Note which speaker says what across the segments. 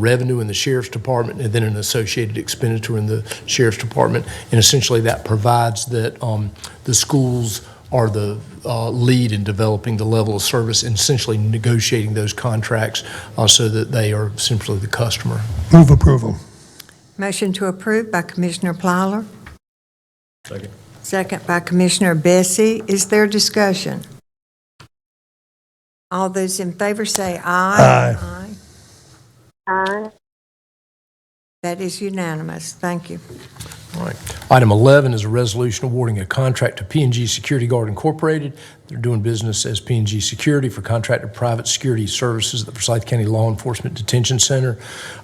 Speaker 1: revenue in the sheriff's department and then an associated expenditure in the sheriff's department. And essentially, that provides that um, the schools are the uh, lead in developing the level of service and essentially negotiating those contracts uh, so that they are essentially the customer.
Speaker 2: Move approval.
Speaker 3: Motion to approve by Commissioner Plaller. Second. Second by Commissioner Bessie. Is there discussion? All those in favor say aye.
Speaker 2: Aye.
Speaker 3: Aye. That is unanimous. Thank you.
Speaker 1: All right. Item 11 is a resolution awarding a contract to p and G Security Guard Incorporated. They're doing business as p and G Security for contracted private security services at the Forsyth County Law Enforcement Detention Center.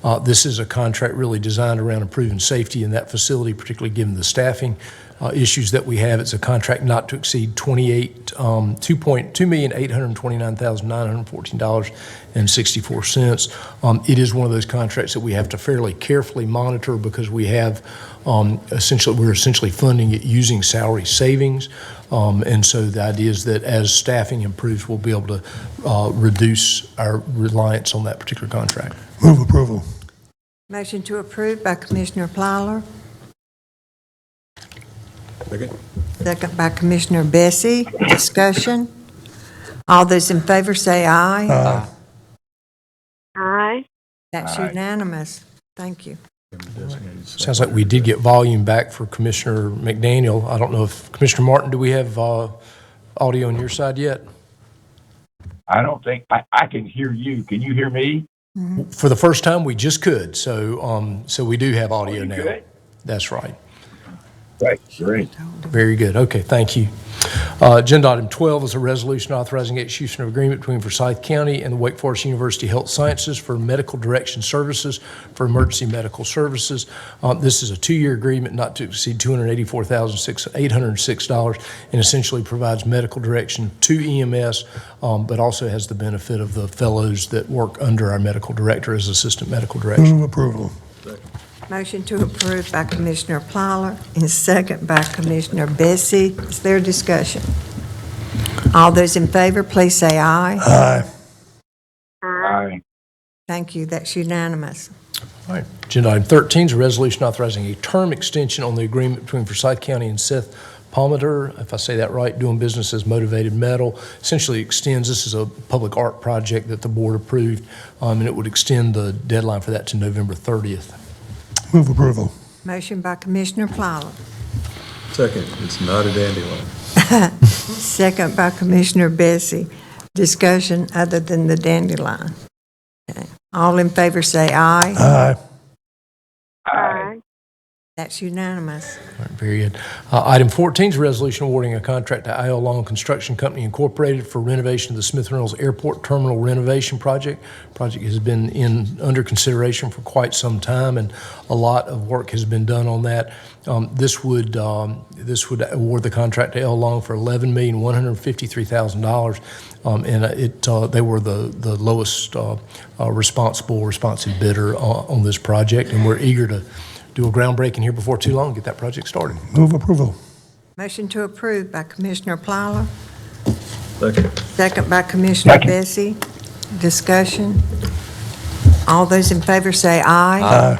Speaker 1: Uh, This is a contract really designed around improving safety in that facility, particularly given the staffing uh, issues that we have. It's a contract not to exceed 28, um, 2.2829914 dollars and sixty-four cents. Um, it is one of those contracts that we have to fairly carefully monitor because we have um, essentially we're essentially funding it using salary savings, um, and so the idea is that as staffing improves, we'll be able to uh, reduce our reliance on that particular contract.
Speaker 2: Move approval.
Speaker 3: Motion to approve by Commissioner Plaller. Second. Second by Commissioner Bessie. Discussion. All those in favor say aye.
Speaker 2: Aye.
Speaker 4: Aye.
Speaker 3: That's unanimous. Thank you.
Speaker 1: Sounds like we did get volume back for Commissioner McDaniel. I don't know if Commissioner Martin, do we have uh, audio on your side yet?
Speaker 5: I don't think I, I can hear you. Can you hear me?
Speaker 1: For the first time, we just could. So, um, so we do have audio
Speaker 5: you
Speaker 1: now.
Speaker 5: good?
Speaker 1: That's right.
Speaker 5: Right, great.
Speaker 1: Very good. Okay, thank you. Uh, Agenda item 12 is a resolution authorizing execution of agreement between Forsyth County and the Wake Forest University Health Sciences for medical direction services for emergency medical services. Uh, This is a two-year agreement not to exceed $284,806 and essentially provides medical direction to EMS, um, but also has the benefit of the fellows that work under our medical director as assistant medical director.
Speaker 2: Move approval.
Speaker 3: Motion to approve by Commissioner Plaller and second by Commissioner Bessie. Is there discussion? All those in favor, please say aye.
Speaker 2: Aye.
Speaker 5: Aye.
Speaker 3: Thank you, that's unanimous.
Speaker 1: All right. Agenda item 13 is a resolution authorizing a term extension on the agreement between Forsyth County and Seth Palmeter, if I say that right, doing business as Motivated Metal. Essentially extends, this is a public art project that the board approved, um, and it would extend the deadline for that to November 30th.
Speaker 2: Move approval.
Speaker 3: Motion by Commissioner Plaller,
Speaker 6: Second, it's not a dandelion.
Speaker 3: second by Commissioner Bessie. Discussion other than the dandelion. Okay. All in favor say aye.
Speaker 2: Aye.
Speaker 4: Aye.
Speaker 3: That's unanimous.
Speaker 1: All right, Very good. Uh, Item 14 is a resolution awarding a contract to IL Long Construction Company Incorporated for renovation of the Smith Reynolds Airport Terminal renovation project. Project has been in, under consideration for quite some time, and a lot of work has been done on that. Um, This would, um, this would award the contract to IL Long for $11,153,000, um, and uh, it, uh, they were the the lowest uh, uh, responsible, responsive bidder uh, on this project, and we're eager to do a groundbreaking here before too long, get that project started.
Speaker 2: Move approval.
Speaker 3: Motion to approve by Commissioner Plaller,
Speaker 6: Second.
Speaker 3: Second by Commissioner
Speaker 5: Second.
Speaker 3: Bessie. Discussion. All those in favor say aye.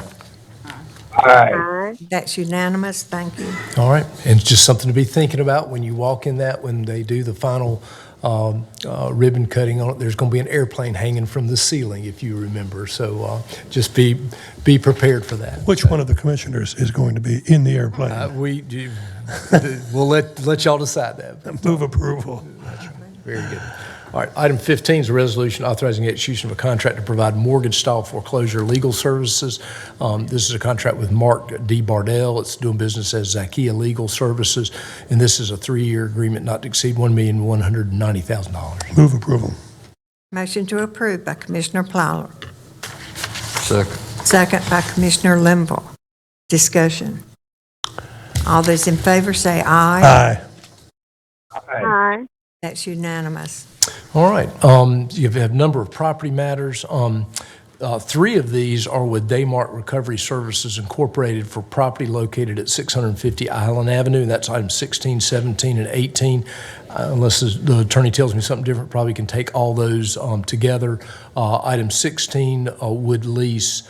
Speaker 2: Aye.
Speaker 5: Aye.
Speaker 4: Aye.
Speaker 3: That's unanimous, thank you.
Speaker 1: All right. And it's just something to be thinking about when you walk in that, when they do the final um, uh, ribbon cutting on it, there's going to be an airplane hanging from the ceiling, if you remember. So uh, just be, be prepared for that.
Speaker 2: Which one of the commissioners is going to be in the
Speaker 1: Uh,
Speaker 2: airplane?
Speaker 1: We, do- we'll let, let y'all decide that.
Speaker 2: Move approval.
Speaker 1: Very good. All right, item 15 is a resolution authorizing execution of a contract to provide mortgage-style foreclosure legal services. Um, This is a contract with Mark D. Bardell. It's doing business as Zakia Legal Services, and this is a three-year agreement not to exceed $1,190,000.
Speaker 2: Move approval.
Speaker 3: Motion to approve by Commissioner Plaller,
Speaker 6: Second.
Speaker 3: second by Commissioner Limble. Discussion. All those in favor say aye.
Speaker 2: Aye.
Speaker 5: Aye.
Speaker 4: Aye.
Speaker 3: That's unanimous.
Speaker 1: All right. Um, You have a number of property matters. Um, Uh, Three of these are with Daymark Recovery Services Incorporated for property located at 650 Island Avenue. That's item 16, 17, and 18. Uh, Unless the- the attorney tells me something different, probably can take all those um, together. Uh, Item 16 uh, would lease